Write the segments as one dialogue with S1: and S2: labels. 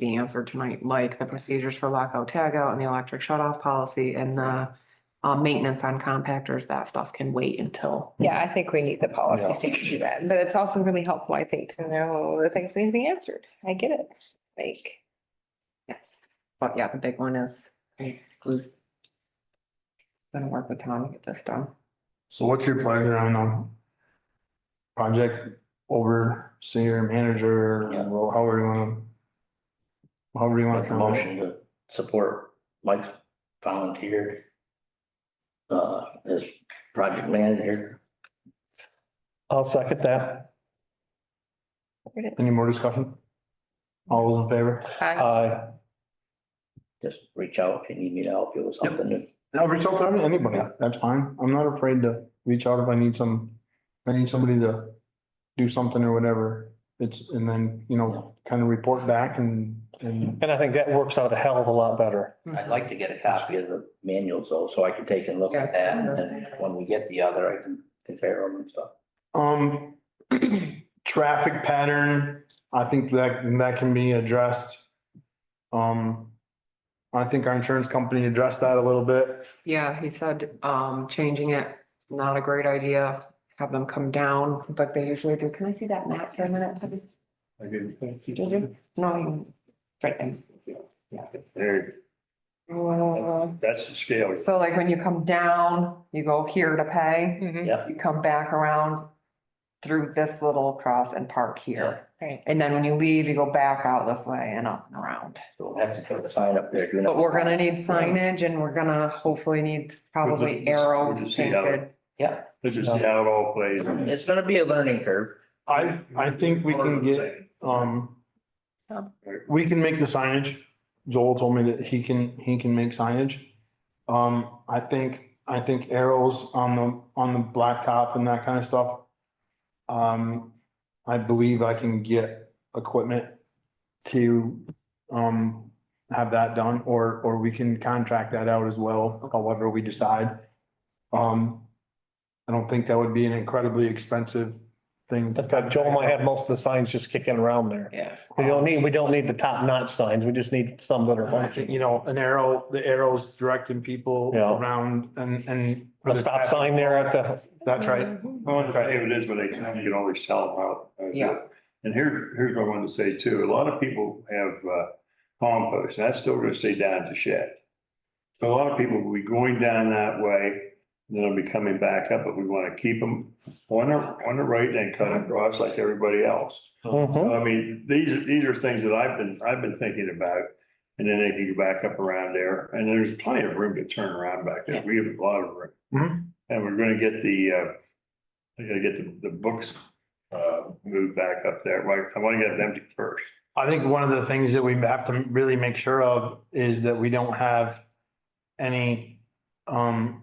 S1: be answered tonight, like the procedures for lockout, tagout and the electric shut-off policy and the uh, maintenance on compactors, that stuff can wait until.
S2: Yeah, I think we need the policies to do that, but it's also really helpful, I think, to know the things that need to be answered. I get it, like. Yes,
S1: But yeah, the big one is, is who's gonna work with Tom to get this done.
S3: So what's your pleasure on, um, project overseer, manager,
S4: Yeah.
S3: well, however you wanna? However you wanna.
S4: Make a motion to support Mike's volunteer. Uh, as project manager,
S5: I'll second that.
S3: Any more discussion? All those in favor?
S2: I-
S5: Aye.
S4: just reach out if you need me to help you with something.
S3: No, reach out to anybody, that's fine, I'm not afraid to reach out if I need some, if I need somebody to do something or whatever. It's, and then, you know, kind of report back and, and,
S5: And I think that works out a hell of a lot better.
S4: I'd like to get a copy of the manuals though, so I can take a look at that, and then when we get the other, I can compare them and stuff.
S3: um, traffic pattern, I think that, that can be addressed. Um, I think our insurance company addressed that a little bit.
S1: Yeah, he said, um, changing it, not a great idea, have them come down like they usually do. Can I see that map for a minute?
S4: I do.
S1: Did you? No, you, right there.
S6: There,
S1: Uh,
S6: that's the scale.
S1: So like when you come down, you go here to pay,
S2: Mhm.
S4: Yep,
S1: you come back around through this little cross and park here.
S2: Right.
S1: And then when you leave, you go back out this way and up and around.
S4: so we'll have to put a sign up there. do not-
S1: But we're gonna need signage and we're gonna hopefully need probably arrows painted.
S4: Yeah,
S6: This is how it all plays.
S4: it's gonna be a learning curve.
S3: I, I think we can get. Um,
S2: Yeah.
S3: we can make the signage. Joel told me that he can, he can make signage. Um, I think, I think arrows on the, on the blacktop and that kind of stuff. Um, I believe I can get equipment to, um, have that done, or, or we can contract that out as well, however we decide. Um, I don't think that would be an incredibly expensive thing. to
S5: In fact, Joel might have most of the signs just kicking around there.
S1: Yeah.
S5: We don't need, we don't need the top notch signs. We just need some that are
S3: And I think,
S5: functioning.
S3: you know, an arrow, the arrows directing people
S5: Yeah.
S3: around and, and.
S5: A stop sign there at the,
S3: That's
S1: Mm-hmm.
S3: right.
S6: Well, that's right, it is, but they can, you can always sell them out. Uh,
S1: Yeah.
S6: And here, here's what I wanted to say too, a lot of people have uh, compost, and that's still gonna stay down at the shed. So a lot of people will be going down that way, and then they'll be coming back up, but we wanna keep them on the, on the right and cut across like everybody else.
S3: Mm-hmm.
S5: Mhm.
S6: So I mean, these, are- these are things that I've been, I've been thinking about, and then they can go back up around there, and there's plenty of room to turn around back there, we have a lot of room.
S3: Mhm.
S6: And we're gonna get the, uh, I gotta get the, the books, uh, moved back up there, Like, I wanna get them empty first.
S3: I think one of the things that we have to really make sure of is that we don't have any, um,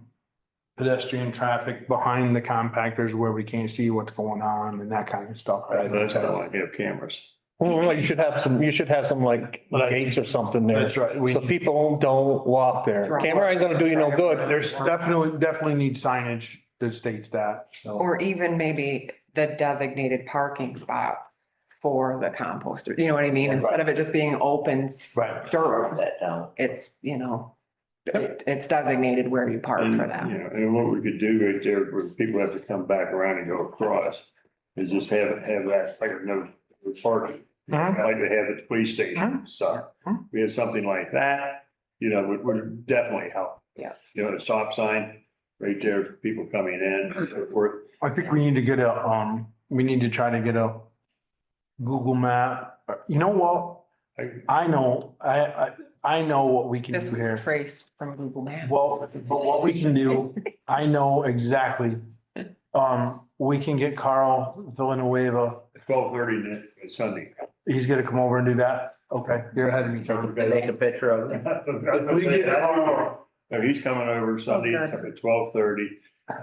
S3: pedestrian traffic behind the compactors where we can't see what's going on and that kind of stuff. I think
S6: That's why I
S3: that-
S6: like to have cameras.
S5: well, you should have some, you should have some like
S3: But I-
S5: gates or something there.
S3: That's right. We,
S5: So people don't walk there.
S1: Right.
S5: Camera ain't gonna do you no good.
S3: there's definitely, definitely need signage that states that, so.
S1: Or even maybe the designated parking spots for the composter, you know what I mean? Instead of it just being open
S3: Right.
S1: dirt,
S4: That down.
S1: it's, you know, it, it's designated where you park
S6: And,
S1: for
S6: you
S1: that.
S6: know, and what we could do right there, where people have to come back around and go across, is just have, have that, like, no, parking.
S3: Mhm.
S6: Like they have at the police station, so
S3: Mhm.
S6: we have something like that, you know, would, would definitely help.
S1: Yeah.
S6: You know, a stop sign right there, for people coming in, and so forth.
S3: I think we need to get a, um, we need to try to get a Google map. You know what?
S6: I-
S3: I know, I, I, I know what we can
S1: This
S3: do
S1: was
S3: here.
S1: traced from Google Maps.
S3: Well, but what we can do, I know exactly. Um, we can get Carl Villanueva.
S6: Twelve thirty to Sunday.
S3: He's gonna come over and do that. Okay, you're ahead of me, Tom.
S4: Make a picture of it.
S3: We can get Carl.
S6: No, he's coming over Sunday
S1: Okay.
S6: at twelve thirty.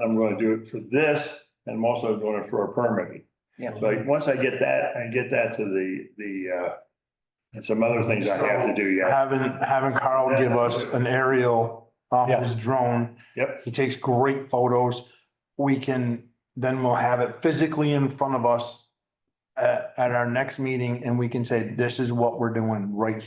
S6: I'm gonna do it for this, and I'm also doing it for a permit.
S1: Yeah.
S6: Like, once I get that, I get that to the, the, uh, and some other things I have to do, yeah.
S3: Having, having Carl give us an aerial off his drone.
S6: Yep.
S3: He takes great photos. We can, then we'll have it physically in front of us at, at our next meeting and we can say, this is what we're doing right